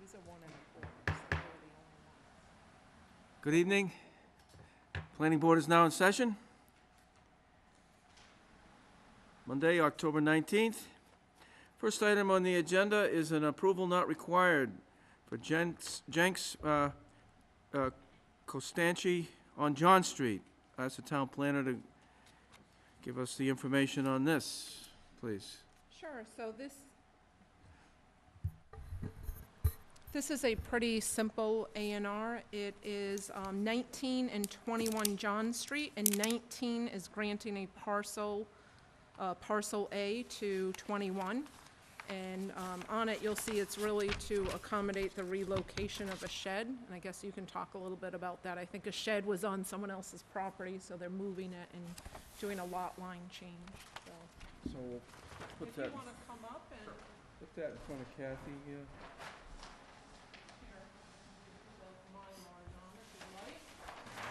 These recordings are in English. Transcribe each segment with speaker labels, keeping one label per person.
Speaker 1: These are one and a quarter, so they're the only ones.
Speaker 2: Good evening. Planning Board is now in session. Monday, October 19th. First item on the agenda is an approval not required for Jenks Jenks, uh, uh, Costanci on John Street. Ask the town planner to give us the information on this, please.
Speaker 1: Sure, so this, this is a pretty simple A and R. It is um, 19 and 21 John Street, and 19 is granting a parcel, uh, parcel A to 21. And um, on it, you'll see it's really to accommodate the relocation of a shed, and I guess you can talk a little bit about that. I think a shed was on someone else's property, so they're moving it and doing a lot line change, so.
Speaker 2: So we'll put
Speaker 1: If you
Speaker 2: that,
Speaker 1: want to come up and,
Speaker 2: put that in front of Kathy here.
Speaker 1: here, both mine are on if you like.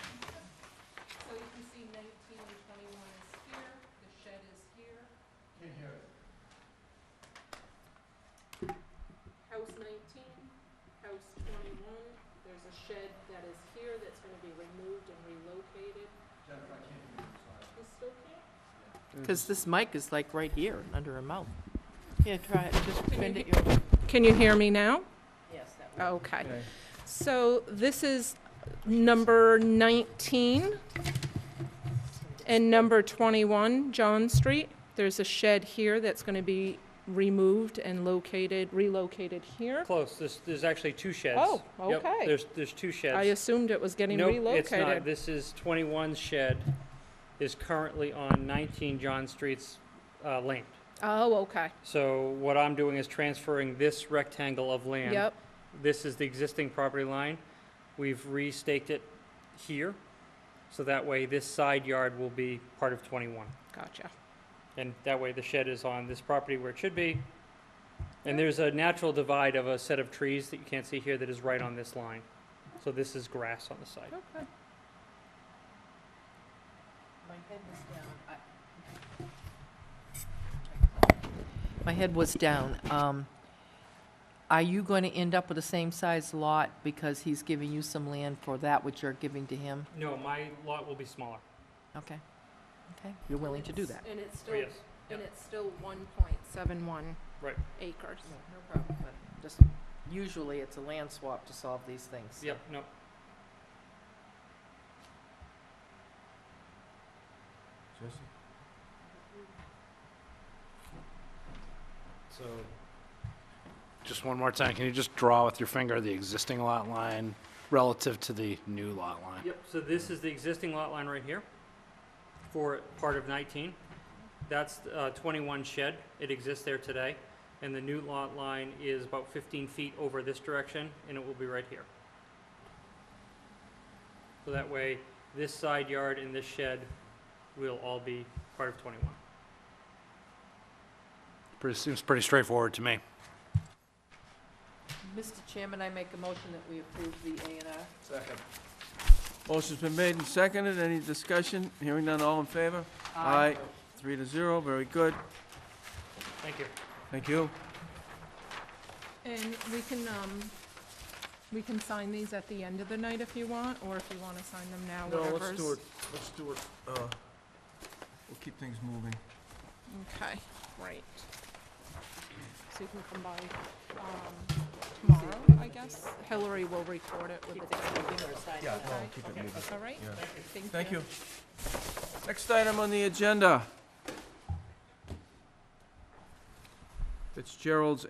Speaker 1: So you can see nineteen and twenty-one is here, the shed is here. House nineteen, house twenty-one, there's a shed that is here that's gonna be removed and relocated. Jennifer, I can't hear you, You still can't?
Speaker 3: Because this mic is like right here, and under her mouth. Yeah, try it, just
Speaker 1: you
Speaker 3: bend
Speaker 1: he-
Speaker 3: it your.
Speaker 1: Can you hear me now?
Speaker 3: Yes, that
Speaker 1: Okay.
Speaker 2: Okay.
Speaker 1: So this is number 19 and number 21 John Street. There's a shed here that's going to be removed and located, relocated here.
Speaker 4: Close, there's, there's actually two sheds.
Speaker 1: Oh,
Speaker 4: Yep,
Speaker 1: okay.
Speaker 4: There's, there's two sheds.
Speaker 1: I assumed it was getting
Speaker 4: Nope, it's not,
Speaker 1: relocated.
Speaker 4: this is 21 shed, is currently on 19 John Street's uh, land.
Speaker 1: Oh, okay.
Speaker 4: So what I'm doing is transferring this rectangle of land.
Speaker 1: Yep,
Speaker 4: This is the existing property line, we've restaked it here, so that way this side yard will be part of 21.
Speaker 1: gotcha.
Speaker 4: And that way the shed is on this property where it should be. And there's a natural divide of a set of trees that you can't see here that is right on this line. So this is grass on the side.
Speaker 1: Okay.
Speaker 3: My head was down. I- My head was down. Um, Are you going to end up with the same size lot because he's giving you some land for that which you're giving to him?
Speaker 4: No, my lot will be smaller.
Speaker 3: Okay, okay, you're willing to do that?
Speaker 1: And it's
Speaker 4: Oh,
Speaker 1: still,
Speaker 4: yes.
Speaker 1: and it's still 1.71
Speaker 4: Right.
Speaker 1: acres.
Speaker 3: No problem, but just, usually it's a land swap to solve these things.
Speaker 4: Yep, no.
Speaker 5: So, just one more time, can you just draw with your finger the existing lot line relative to the new lot line?
Speaker 4: Yep, so this is the existing lot line right here for part of 19. That's uh, 21 shed. It exists there today. And the new lot line is about 15 feet over this direction, and it will be right here. So that way, this side yard and this shed will all be part of 21.
Speaker 5: Pretty, seems pretty straightforward to me.
Speaker 3: Mr. Chairman, I make a motion that we approve the A and R.
Speaker 5: Second.
Speaker 2: Motion's been made and seconded. Any discussion? Hearing none, all in favor? Aye. Three to zero, very good.
Speaker 4: Thank you.
Speaker 2: Thank you.
Speaker 1: And we can, um, we can sign these at the end of the night if you want, or if you want to sign them now, whatever's.
Speaker 2: let's do it, uh, we'll keep things moving.
Speaker 1: Okay, right. So you can come by, um, tomorrow, I guess. Hillary will record it with the date.
Speaker 2: Yeah,
Speaker 1: no, keep
Speaker 2: it moving.
Speaker 1: All right?
Speaker 2: Yeah.
Speaker 1: Thank you.
Speaker 2: Thank you. Next item on the agenda. Fitzgerald's